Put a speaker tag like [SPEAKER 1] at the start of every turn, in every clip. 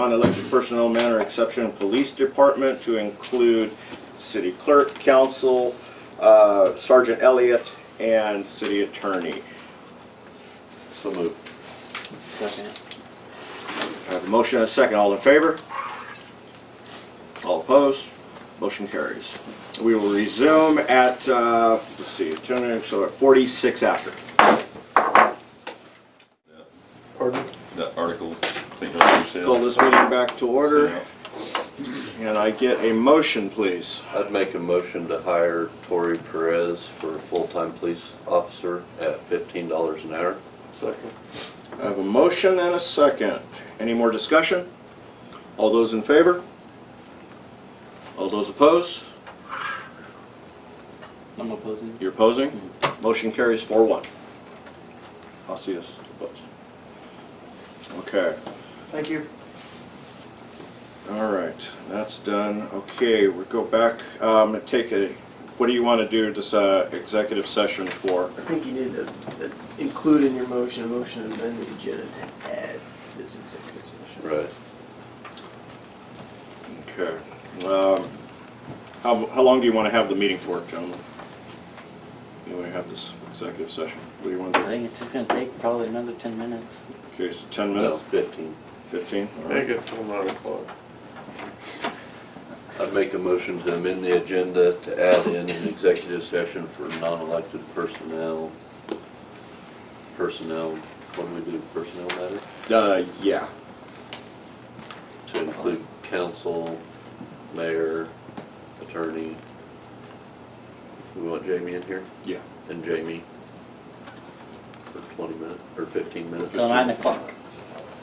[SPEAKER 1] non-elected personnel manner exception, police department to include city clerk, council, uh, Sergeant Elliott, and city attorney.
[SPEAKER 2] So moved.
[SPEAKER 3] Second.
[SPEAKER 1] I have a motion and a second. All in favor? All opposed? Motion carries. We will resume at, uh, let's see, January, so at 46 after.
[SPEAKER 3] Pardon?
[SPEAKER 2] That article, think of it
[SPEAKER 1] Call
[SPEAKER 2] yourself.
[SPEAKER 1] this meeting back to order. And I get a motion, please.
[SPEAKER 4] I'd make a motion to hire Tori Perez for a full-time police officer at fifteen dollars an hour.
[SPEAKER 3] Second.
[SPEAKER 1] I have a motion and a second. Any more discussion? All those in favor? All those opposed?
[SPEAKER 3] I'm opposing.
[SPEAKER 1] You're opposing? Motion carries four one. I'll see us opposed. Okay.
[SPEAKER 3] Thank you.
[SPEAKER 1] All right, that's done. Okay, we go back, um, and take a, what do you want to do this, uh, executive session for?
[SPEAKER 5] I think you need to uh, include in your motion, a motion to amend the agenda to add this executive session.
[SPEAKER 4] Right.
[SPEAKER 1] Okay. Um, how, how long do you want to have the meeting for, gentlemen? You want to have this executive session? What do you want
[SPEAKER 3] I
[SPEAKER 1] to do?
[SPEAKER 3] think it's just gonna take probably another ten minutes.
[SPEAKER 1] Okay, so ten
[SPEAKER 4] No,
[SPEAKER 1] minutes,
[SPEAKER 4] fifteen.
[SPEAKER 1] fifteen?
[SPEAKER 6] Make it till nine o'clock.
[SPEAKER 4] I'd make a motion to amend the agenda to add in an executive session for non-elected personnel. Personnel, what do we do, personnel matter?
[SPEAKER 1] Uh, yeah.
[SPEAKER 4] To include council, mayor, attorney. We want Jamie in here?
[SPEAKER 1] Yeah.
[SPEAKER 4] And Jamie for twenty minutes, or fifteen minutes.
[SPEAKER 3] Till nine o'clock.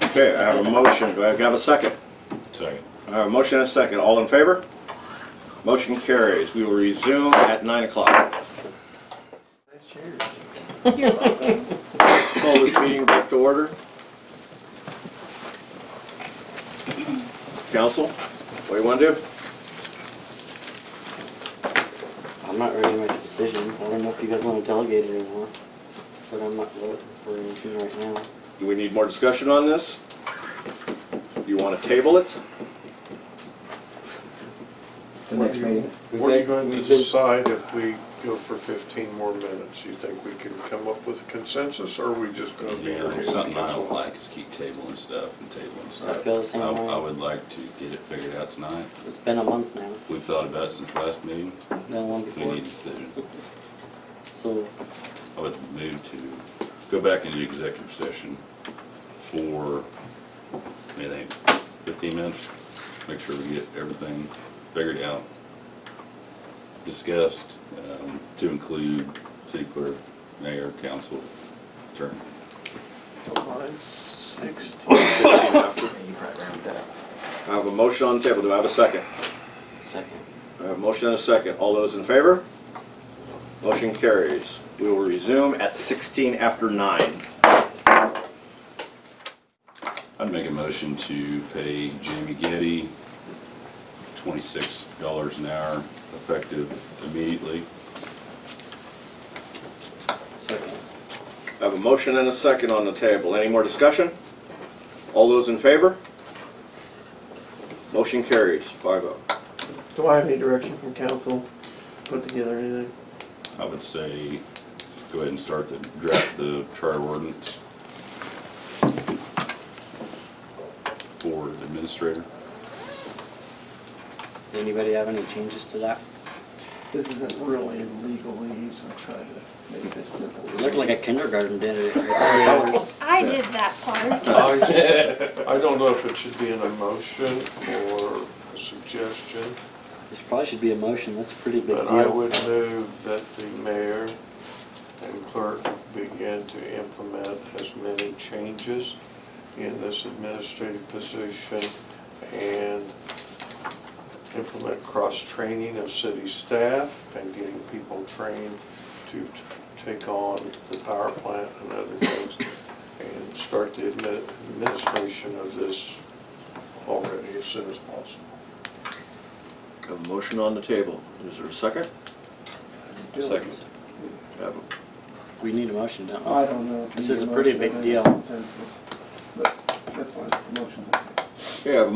[SPEAKER 1] Okay, I have a motion. Do I have a second?
[SPEAKER 2] Second.
[SPEAKER 1] I have a motion and a second. All in favor? Motion carries. We will resume at nine o'clock.
[SPEAKER 5] Nice chairs.
[SPEAKER 1] Call this meeting back to order. Council, what do you want to do?
[SPEAKER 3] I'm not ready to make a decision. I don't know if you guys wanna delegate it anymore, but I'm not voting for anything right now.
[SPEAKER 1] Do we need more discussion on this? You want to table it?
[SPEAKER 3] The next meeting.
[SPEAKER 6] What are you going to decide if we go for fifteen more minutes? You think we can come up with a consensus, or are we just gonna be here? till
[SPEAKER 2] Something I don't
[SPEAKER 6] council?
[SPEAKER 2] like is keep tabling stuff and tabling stuff.
[SPEAKER 3] feel the same
[SPEAKER 2] I-
[SPEAKER 3] way.
[SPEAKER 2] I would like to get it figured out tonight.
[SPEAKER 3] It's been a month now,
[SPEAKER 2] We've thought about it since last meeting.
[SPEAKER 3] no one
[SPEAKER 2] We
[SPEAKER 3] before,
[SPEAKER 2] need a decision.
[SPEAKER 3] so
[SPEAKER 2] I would move to go back into executive session for, I think, fifteen minutes. Make sure we get everything figured out, discussed, um, to include city clerk, mayor, council, attorney.
[SPEAKER 5] July sixteen. You probably ran with that.
[SPEAKER 1] I have a motion on the table. Do I have a second?
[SPEAKER 3] second.
[SPEAKER 1] I have a motion and a second. All those in favor? Motion carries. We will resume at 16 after 9.
[SPEAKER 2] I'd make a motion to pay Jamie Getty twenty-six dollars an hour effective immediately.
[SPEAKER 3] Second.
[SPEAKER 1] I have a motion and a second on the table. Any more discussion? All those in favor? Motion carries, oh. 5-0.
[SPEAKER 5] Do I have any direction from council, put together anything?
[SPEAKER 2] I would say, go ahead and start the draft, the charter ordinance for the administrator.
[SPEAKER 3] Anybody have any changes to that?
[SPEAKER 5] This isn't really a legalese, I'm trying to make this simple.
[SPEAKER 3] It looked like a kindergarten did it. with all the colors.
[SPEAKER 7] I did that part.
[SPEAKER 6] I don't know if it should be in a motion or a suggestion,
[SPEAKER 3] This probably should be a motion, that's a pretty big
[SPEAKER 6] but I
[SPEAKER 3] deal.
[SPEAKER 6] would move that the mayor and clerk begin to implement as many changes in this administrative position and implement cross-training of city staff and getting people trained to t- take on the power plant and other things and start the admi- administration of this already as soon as possible.
[SPEAKER 1] I have a motion on the table. Is there a second?
[SPEAKER 4] Second.
[SPEAKER 1] I have a-
[SPEAKER 3] We need a motion, don't we?
[SPEAKER 5] I don't know. if
[SPEAKER 3] This
[SPEAKER 5] you
[SPEAKER 3] is a
[SPEAKER 5] need
[SPEAKER 3] pretty
[SPEAKER 5] motion
[SPEAKER 3] big
[SPEAKER 5] or
[SPEAKER 3] deal.
[SPEAKER 5] consensus, But that's fine, motion's okay.
[SPEAKER 1] Okay, I have a